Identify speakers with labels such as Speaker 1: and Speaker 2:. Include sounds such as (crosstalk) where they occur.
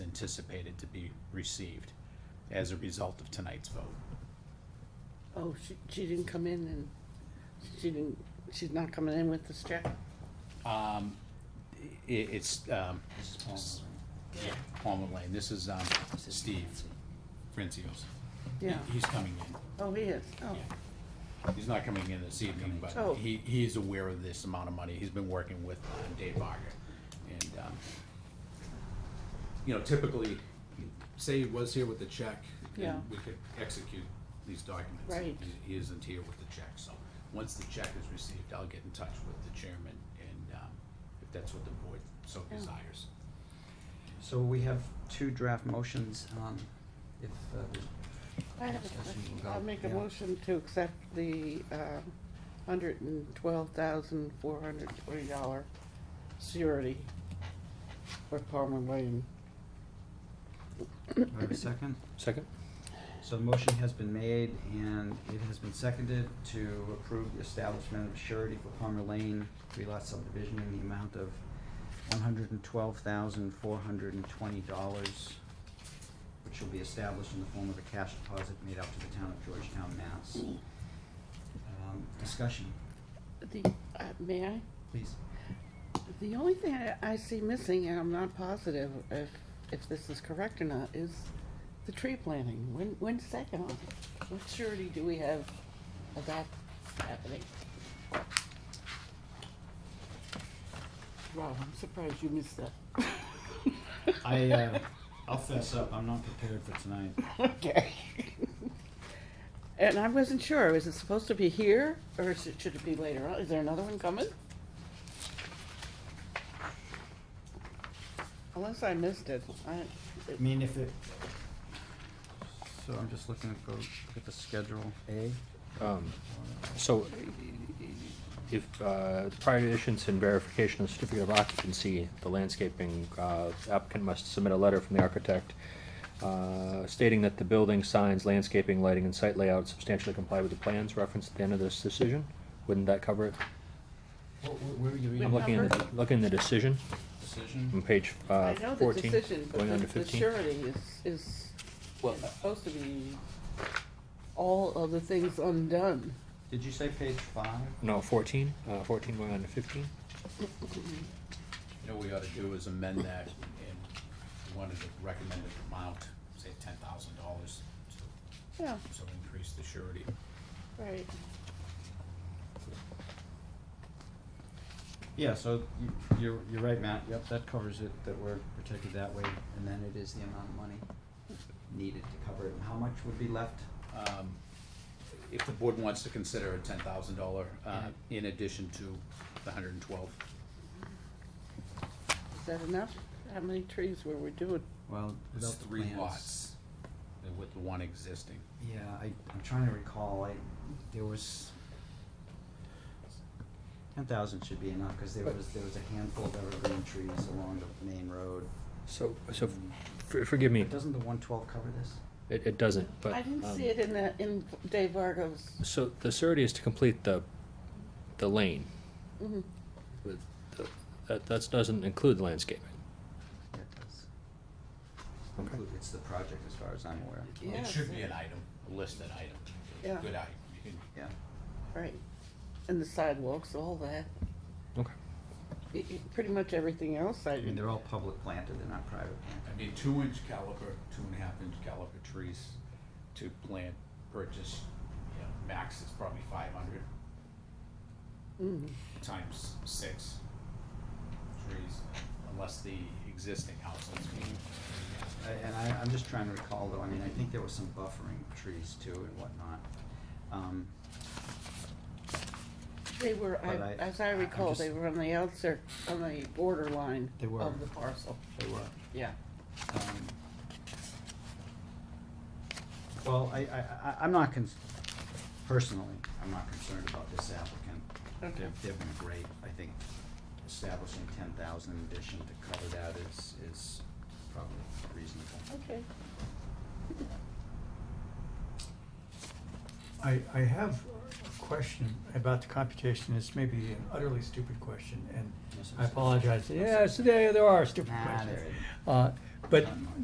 Speaker 1: anticipated to be received as a result of tonight's vote.
Speaker 2: Oh, she, she didn't come in and, she didn't, she's not coming in with this check?
Speaker 1: Um, i- it's, um,
Speaker 3: This is Palmer.
Speaker 1: yeah, Palmer Lane, this is, um,
Speaker 3: This is
Speaker 1: Steve
Speaker 3: Nancy.
Speaker 1: Francios. He-
Speaker 2: Yeah,
Speaker 1: He's coming in,
Speaker 2: oh, he is, oh,
Speaker 1: yeah. He's not coming in this evening,
Speaker 2: Oh.
Speaker 1: but he, he is aware of this amount of money, he's been working with uh, Dave Varga. And, um, you know, typically, say he was here with the check,
Speaker 2: Yeah.
Speaker 1: and we could execute these documents.
Speaker 2: Right.
Speaker 1: He- He isn't here with the check, so, once the check is received, I'll get in touch with the chairman, and, um, if that's what the board so
Speaker 2: Yeah.
Speaker 1: desires.
Speaker 3: So we have two draft motions, um, if, uh,
Speaker 2: I have a
Speaker 3: Discussion
Speaker 2: question,
Speaker 3: will go,
Speaker 2: I'll make a
Speaker 3: yeah.
Speaker 2: motion to accept the, um, hundred and twelve thousand, four hundred and twenty dollar surety for Palmer Lane.
Speaker 3: do I have a second?
Speaker 4: Second?
Speaker 3: So the motion has been made and it has been seconded to approve the establishment of surety for Palmer Lane, three lot subdivision in the amount of one hundred and twelve thousand, four hundred and twenty dollars, which will be established in the form of a cash deposit made out to the town of Georgetown, Mass. Um, discussion,
Speaker 2: The, uh, may I?
Speaker 3: please.
Speaker 2: The only thing I, I see missing, and I'm not positive if, if this is correct or not, is the tree planting. When, when's that going on? What surety do we have of that happening? Rob, I'm surprised you missed that. (laughs)
Speaker 3: I, uh, I'll fess up, I'm not prepared for tonight.
Speaker 2: Okay. And I wasn't sure, is it supposed to be here, or is it- should it be later on? Is there another one coming? Unless I missed it, I,
Speaker 3: I mean, if it. So I'm just looking at the, at the schedule A.
Speaker 4: Um, So if, uh, prior to issuance and verification of certificate of occupancy, the landscaping uh, applicant must submit a letter from the architect uh, stating that the building, signs, landscaping, lighting, and site layout substantially comply with the plans referenced at the end of this decision? Wouldn't that cover it?
Speaker 3: Where, where were you
Speaker 2: Wait,
Speaker 4: I'm looking at,
Speaker 2: number?
Speaker 4: the- looking at the decision on
Speaker 3: Decision?
Speaker 4: page uh,
Speaker 2: I know the
Speaker 4: fourteen,
Speaker 2: decision, but
Speaker 4: going on
Speaker 2: the
Speaker 4: to
Speaker 2: the
Speaker 4: fifteen.
Speaker 2: surety is, is
Speaker 4: Well,
Speaker 2: is supposed to be all of the things undone.
Speaker 3: Did you say page five?
Speaker 4: No, fourteen, uh, fourteen going on to fifteen?
Speaker 1: You know, what we ought to do is amend that, and we wanted to recommend an amount, say ten thousand dollars, to,
Speaker 2: Yeah,
Speaker 1: so increase the surety.
Speaker 2: right.
Speaker 3: Yeah, so you, you're, you're right, Matt, yep, that covers it, that we're protected that way, and then it is the amount of money needed to cover it, and how much would be left?
Speaker 1: Um, If the board wants to consider a ten thousand dollar, uh, in addition to the hundred and twelve,
Speaker 2: Is that enough? How many trees were we doing?
Speaker 3: Well,
Speaker 1: it's
Speaker 3: without the
Speaker 1: three
Speaker 3: plans.
Speaker 1: lots, uh, with the one existing.
Speaker 3: Yeah, I, I'm trying to recall, I, there was, ten thousand should be enough, cause there was, there was a handful of evergreen trees along the main road.
Speaker 4: So, so, f- forgive me,
Speaker 3: But doesn't the one twelve cover this?
Speaker 4: it, it doesn't, but.
Speaker 2: I didn't
Speaker 4: um,
Speaker 2: see it in the, in Dave Vargo's.
Speaker 4: So the surety is to complete the, the lane.
Speaker 2: Mhm.
Speaker 4: With the- That, that doesn't include landscaping.
Speaker 3: Yeah, it does. Include- It's the project as far as I'm aware.
Speaker 1: It
Speaker 2: Yes.
Speaker 1: should be an item, a listed item,
Speaker 2: Yeah.
Speaker 1: good item. You can-
Speaker 3: Yeah.
Speaker 2: Right. And the sidewalks, all that.
Speaker 4: Okay.
Speaker 2: Y- y- Pretty much everything else I
Speaker 3: I mean,
Speaker 2: did.
Speaker 3: they're all public planted, they're not private planted.
Speaker 1: I need two inch caliper, two and a half inch caliper trees to plant, purchase, you know, max is probably five hundred.
Speaker 2: mm.
Speaker 1: Times six trees, unless the existing house is being,
Speaker 3: I- And I, I'm just trying to recall though, I mean, I think there was some buffering trees too and whatnot. Um,
Speaker 2: They were, I-
Speaker 3: But I-
Speaker 2: as I
Speaker 3: I'm
Speaker 2: recall,
Speaker 3: just-
Speaker 2: they were on the outskirts, on the borderline
Speaker 3: They were.
Speaker 2: of the parcel.
Speaker 3: They were.
Speaker 2: Yeah.
Speaker 3: um, Well, I, I, I- I'm not cons- personally, I'm not concerned about this applicant.
Speaker 2: Okay.
Speaker 3: They've, they've been great. I think establishing ten thousand in addition to cover that is, is probably reasonable.
Speaker 2: Okay.
Speaker 5: I, I have a question about the computation. It's maybe an utterly stupid question, and
Speaker 3: Yes,
Speaker 5: I
Speaker 3: it's-
Speaker 5: apologize. Yes, there, there are stupid
Speaker 3: Nah,
Speaker 5: questions.
Speaker 3: there it is.
Speaker 5: Uh, But